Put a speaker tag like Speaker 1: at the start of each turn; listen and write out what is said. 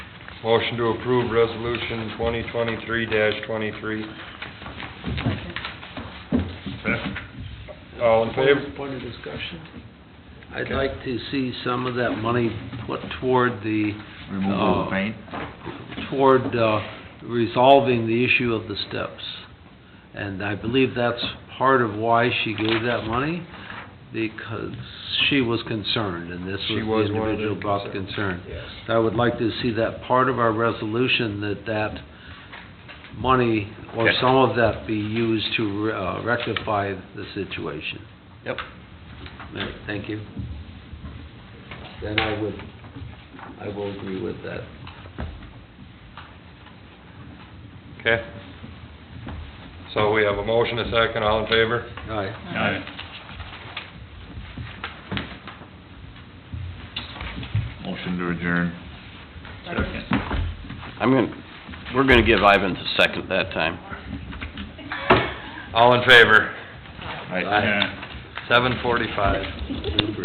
Speaker 1: Motion to approve resolution twenty twenty-three twenty-three. All in favor?
Speaker 2: Point of discussion?
Speaker 3: I'd
Speaker 1: Okay.
Speaker 3: like to see some of that money put toward the,
Speaker 4: Removal
Speaker 3: Uh,
Speaker 4: of paint?
Speaker 3: toward uh, resolving the issue of the steps. And I believe that's part of why she gave that money, because she was concerned, and this was the
Speaker 1: She was one of the
Speaker 3: individual about
Speaker 1: concerns.
Speaker 3: concern.
Speaker 1: Yes.
Speaker 3: I would like to see that part of our resolution, that that money, or
Speaker 4: Okay.
Speaker 3: some of that be used to uh, rectify the situation.
Speaker 4: Yep.
Speaker 3: All right, Thank you. Then I would, I will agree with that.
Speaker 1: Okay. So we have a motion, a second, all in favor?
Speaker 3: All right,
Speaker 4: Motion to adjourn.
Speaker 5: I'm gonna, we're gonna give Ivan the second that time.
Speaker 1: All in favor?
Speaker 4: Aye.
Speaker 3: Aye.
Speaker 1: Seven forty-five.
Speaker 3: super.